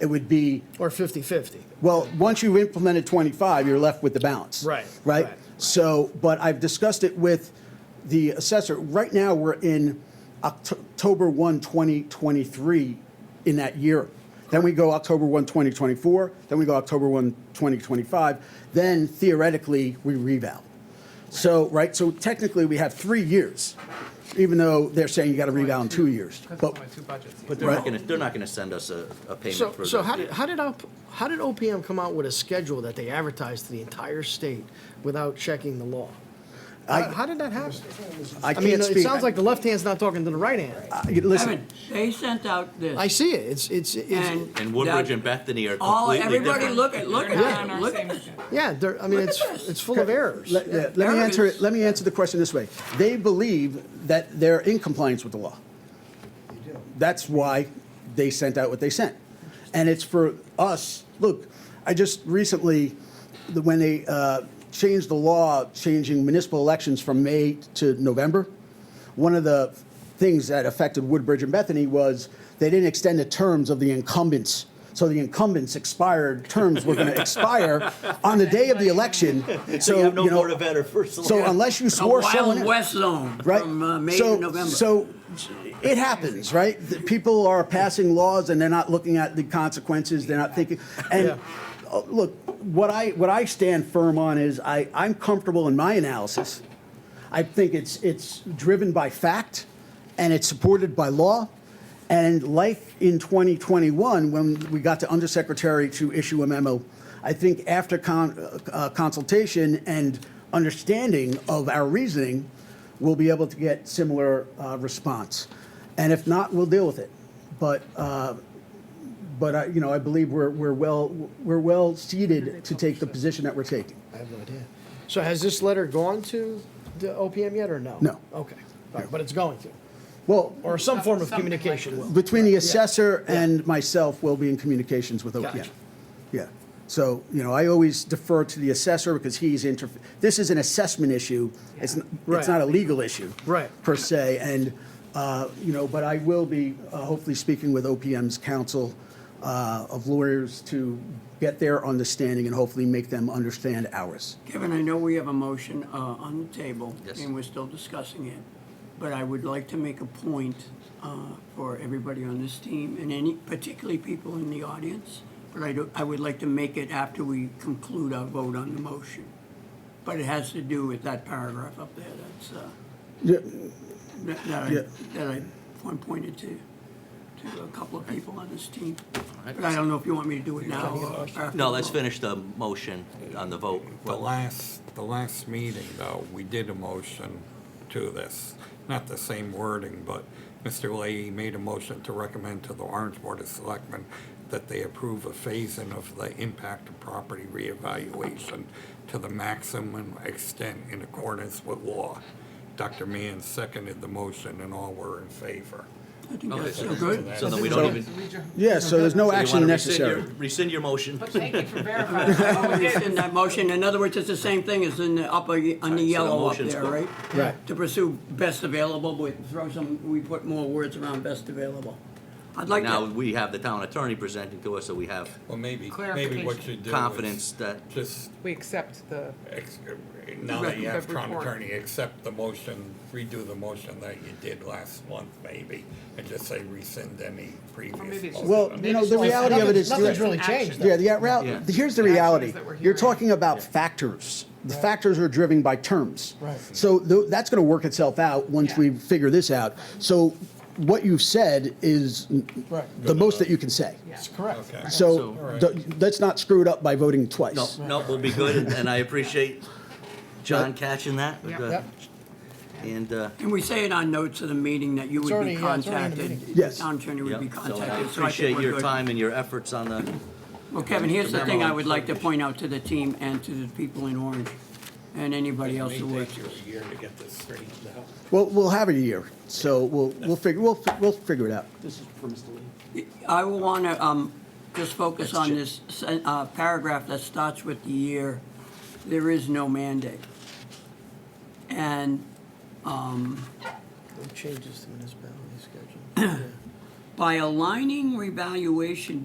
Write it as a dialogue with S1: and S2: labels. S1: it would be,
S2: or 50/50.
S1: well, once you've implemented 25, you're left with the balance.
S2: Right,
S1: Right?
S2: right.
S1: So, but I've discussed it with the assessor. Right now, we're in Oct- October 1, 2023, in that year. Then we go October 1, 2024, then we go October 1, 2025, then theoretically, we revow. So, right, so technically, we have three years, even though they're saying you got to revow in two years.
S3: Because
S1: But
S3: it's only two budgets.
S4: But they're
S1: Right.
S4: not gonna, they're not gonna send us a, a payment
S2: So,
S4: for.
S2: so
S4: the-
S2: how did, how did, op- how did OPM come out with a schedule that they advertised to the entire state without checking the law?
S1: I-
S2: How how did that happen?
S1: I
S2: I mean,
S1: can't speak.
S2: it sounds like the left hand's not talking to the right hand.
S1: Uh, Listen,
S5: Evan, they sent out this.
S2: I see it, it's, it's, it's,
S5: And.
S4: And Woodbridge
S5: that-
S4: and Bethany are
S5: All,
S4: completely
S5: everybody
S4: different.
S5: look at, look
S3: They're
S5: at
S3: not on
S5: that,
S3: our
S5: look
S3: same
S5: at.
S3: sheet.
S2: yeah, there, I mean,
S5: Look
S2: it's,
S5: at this.
S2: it's full of errors.
S1: Let, let- let me
S5: Eric
S1: answer
S5: is-
S1: it, let me answer the question this way. They believe that they're in compliance with the law. That's why they sent out what they sent. And it's for us, look, I just recently, the- when they uh, changed the law, changing municipal elections from May to November, one of the things that affected Woodbridge and Bethany was they didn't extend the terms of the incumbents. So the incumbents' expired terms were going to expire on the day of the election.
S4: So you have no
S1: know,
S4: board of ed or first.
S1: So unless you
S5: A
S1: swore someone
S5: Wild
S1: in,
S5: West Zone
S1: right?
S5: from uh, May
S1: so,
S5: to November.
S1: So it happens, right? The people are passing laws and they're not looking at the consequences. They're not thinking. And
S2: Yeah.
S1: oh, look, what I what I stand firm on is I I'm comfortable in my analysis. I think it's it's driven by fact, and it's supported by law. And like in 2021, when we got the undersecretary to issue a memo, I think after con- uh, consultation and understanding of our reasoning, we'll be able to get similar uh, response. And if not, we'll deal with it. But uh, but I, you know, I believe we're we're well we're well seated to take the position that we're taking.
S2: I have no idea. So has this letter gone to the OPM yet, or no?
S1: No.
S2: Okay, All right, but it's going to,
S1: Well,
S2: or some form of
S3: Something like
S2: communication
S3: this.
S2: will.
S1: Between the assessor and myself, we'll be in communications with OPM.
S2: Gotcha.
S1: Yeah. So, you know, I always defer to the assessor because he's inter, this is an assessment issue. It's, n-
S2: Right.
S1: it's not a legal issue.
S2: Right.
S1: Per se, and, uh, you know, but I will be uh, hopefully speaking with OPM's counsel uh, of lawyers to get their understanding and hopefully make them understand ours.
S5: Kevin, I know we have a motion uh, on the table.
S4: Yes.
S5: And we're still discussing it, but I would like to make a point uh, for everybody on this team and any, particularly people in the audience, but I do, I would like to make it after we conclude our vote on the motion. But it has to do with that paragraph up there that's, uh,
S1: Yeah,
S5: that that I,
S1: Yeah.
S5: that I one pointed to, to a couple of people on this team. But I don't know if you want me to do it now or after.
S4: No,
S5: the
S4: let's
S5: vote.
S4: finish the motion on the vote.
S6: The last, the last meeting, though, we did a motion to this, not the same wording, but Mr. Leahy made a motion to recommend to the Orange Board of Selectmen that they approve a phasing of the impact of property reevaluation to the maximum extent in accordance with law. Dr. Mann seconded the motion, and all were in favor.
S5: I think that's
S4: so-
S5: so good.
S4: So then we don't even.
S1: Yeah, so there's no
S4: so you
S1: action
S4: wanna rescind your-
S1: necessary.
S4: Rescind your motion.
S3: But thank you for verifying. what we did.
S5: In that motion, in other words, it's the same thing as in the upper, on the
S4: the
S5: yellow up
S4: motion's
S5: there,
S4: gone.
S5: right?
S2: Right.
S5: To pursue best available, we throw some, we put more words around best available. I'd like
S4: Now,
S5: to,
S4: we have the town attorney presenting to us, so we have
S6: Well, maybe, maybe what you do is
S4: confidence that,
S6: Just
S3: We accept the,
S6: Ex- Now that you have town
S3: Report.
S6: attorney, accept the motion, redo the motion that you did last month, maybe, and just say rescind any previous.
S3: or maybe it's just.
S6: motion.
S1: Well, you know, the
S3: maybe it's
S1: reality
S3: just-
S1: of it is-
S2: Nothing's really changed, though.
S1: Yeah, the, ra-
S4: Yeah.
S1: here's the
S3: The actions
S1: reality.
S3: that we're
S1: You're
S3: hearing.
S1: talking about factors. The factors are driven by terms.
S2: Right.
S1: So tho- that's going to work itself out once
S3: Yeah.
S1: we figure this out. So what you've said is n-
S2: Right.
S1: the most that you can say.
S3: Yeah.
S2: That's correct.
S6: Okay.
S1: So
S4: So-
S1: th- let's not screw it up by voting twice.
S4: no, no, we'll be good, and- and I appreciate John catching that.
S3: Yep.
S4: uh,
S2: Yep.
S4: And, uh,
S5: and we say in our notes of the meeting that you
S2: It's
S5: would
S2: already-
S5: be
S2: yeah, it's already in the
S5: contacted.
S1: meeting. Yes.
S5: The town attorney would be
S4: yep, so I
S5: contacted, so I
S4: appreciate
S5: think we're
S4: your
S5: good.
S4: time and your efforts on the,
S5: Well, Kevin, here's the
S4: Memo
S5: thing I
S4: on
S5: would like to point out to the team and to the people in Orange and anybody else who
S6: May
S5: works.
S6: take you a year to get this straightened out.
S1: Well, we'll have it a year. So we'll, we'll figure, we'll, fi- we'll figure it out. This is for Mr. Lee.
S5: I will want to, um, just focus on this, sen- uh, paragraph that starts with the year, there is no mandate. And um,
S2: Changes to municipality schedule.
S5: by aligning revaluation